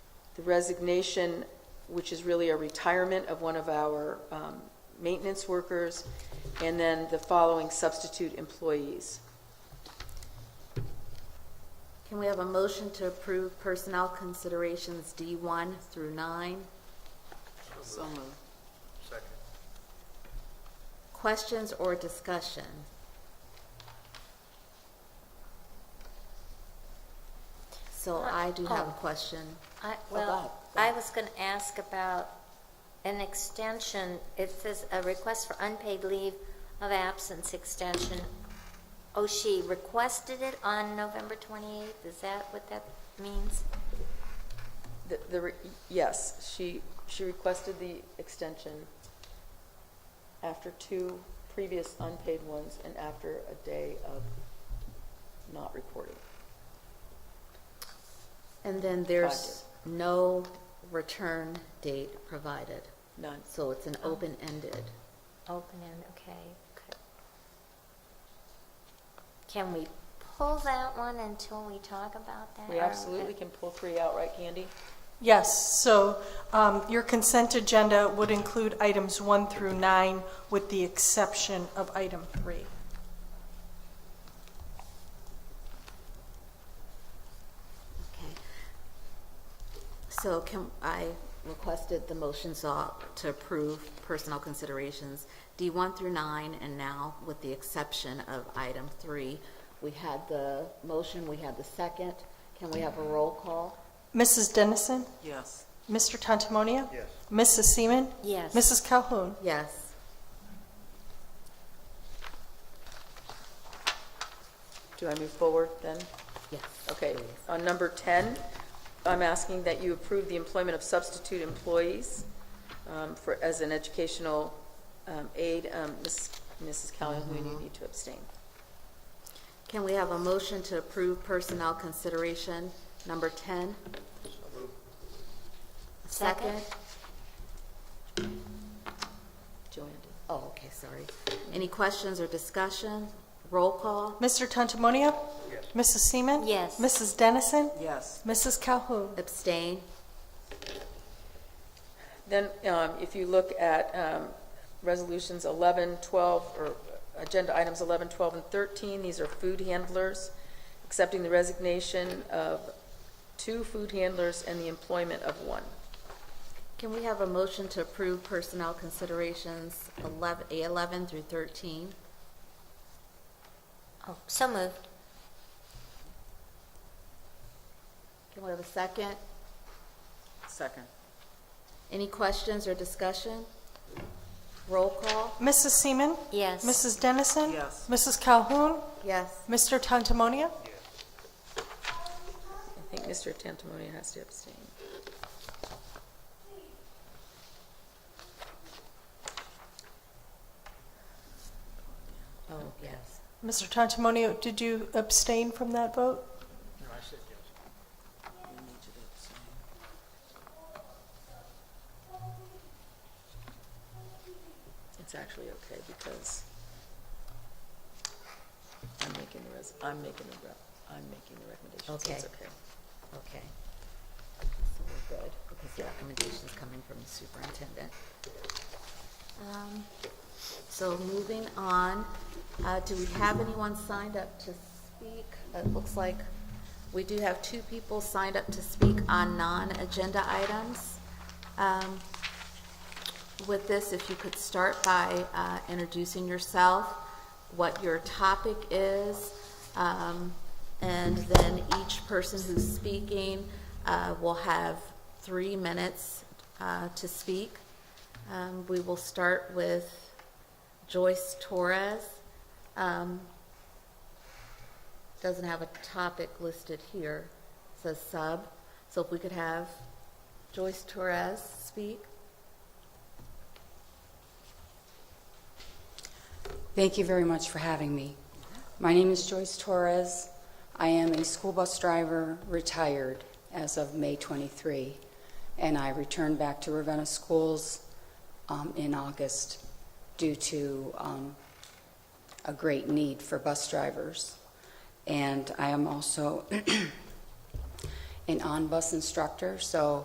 the resignation, which is really a retirement of one of our um, maintenance workers, and then the following substitute employees. Can we have a motion to approve personnel considerations D1 through 9? So moved. Second. Questions or discussion? So I do have a Oh. question. I, Bob, well, I was going to ask about an extension. It says a request for unpaid leave of absence extension. Oh, she requested it on November 28th. Is that what that means? The- The, re- yes, she, she requested the extension after two previous unpaid ones and after a day of not reporting. And then there's no return date provided, None. so it's an open-ended. Open and, okay. good. Can we pull that one until we talk about that? We absolutely can pull three out, right, Candy? Yes, so um, your consent agenda would include items one through nine with the exception of item three. Okay. So can, I requested the motion sought to approve personnel considerations D1 through 9, and now with the exception of item 3. We had the motion, we had the second. Can we have a roll call? Mrs. Dennison? Yes. Mr. Tantamonia? Yes. Mrs. Seaman? Yes. Mrs. Calhoun? Yes. Do I move forward then? Yes. Okay, on number 10, I'm asking that you approve the employment of substitute employees um, for, as an educational um, aide. Um, Ms. Mrs. Calhoun, you need to abstain. Can we have a motion to approve personnel consideration number 10? Second? Joanne did. Oh, okay, sorry. Any questions or discussion? Roll call? Mr. Tantamonia? Yes. Mrs. Seaman? Yes. Mrs. Dennison? Yes. Mrs. Calhoun? Abstain? Then, um, if you look at um, resolutions 11, 12, or agenda items 11, 12, and 13, these are food handlers, accepting the resignation of two food handlers and the employment of one. Can we have a motion to approve personnel considerations 11 11 through 13? Oh, so moved. Can we have a second? Second. Any questions or discussion? Roll call? Mrs. Seaman? Yes. Mrs. Dennison? Yes. Mrs. Calhoun? Yes. Mr. Tantamonia? I think Mr. Tantamonia has to abstain. Oh, yes. Mr. Tantamonia, did you abstain from that vote? No, I said yes. It's actually okay, because I'm making the res, I'm making the, rep- I'm making the recommendation, so it's Okay. okay. Okay. So we're good, because the recommendation's coming from the superintendent. Um, So moving on, uh, do we have anyone signed up to speak? It looks like we do have two people signed up to speak on non-agenda items. Um, With this, if you could start by uh, introducing yourself, what your topic is, um, and then each person who's speaking uh, will have three minutes uh, to speak. Um, We will start with Joyce Torres. Um, Doesn't have a topic listed here, says sub. So if we could have Joyce Torres speak. Thank you very much for having me. My name is Joyce Torres. I am a school bus driver, retired as of May 23, and I returned back to Ravenna Schools um, in August due to um, a great need for bus drivers. And I am also an on-bus instructor, so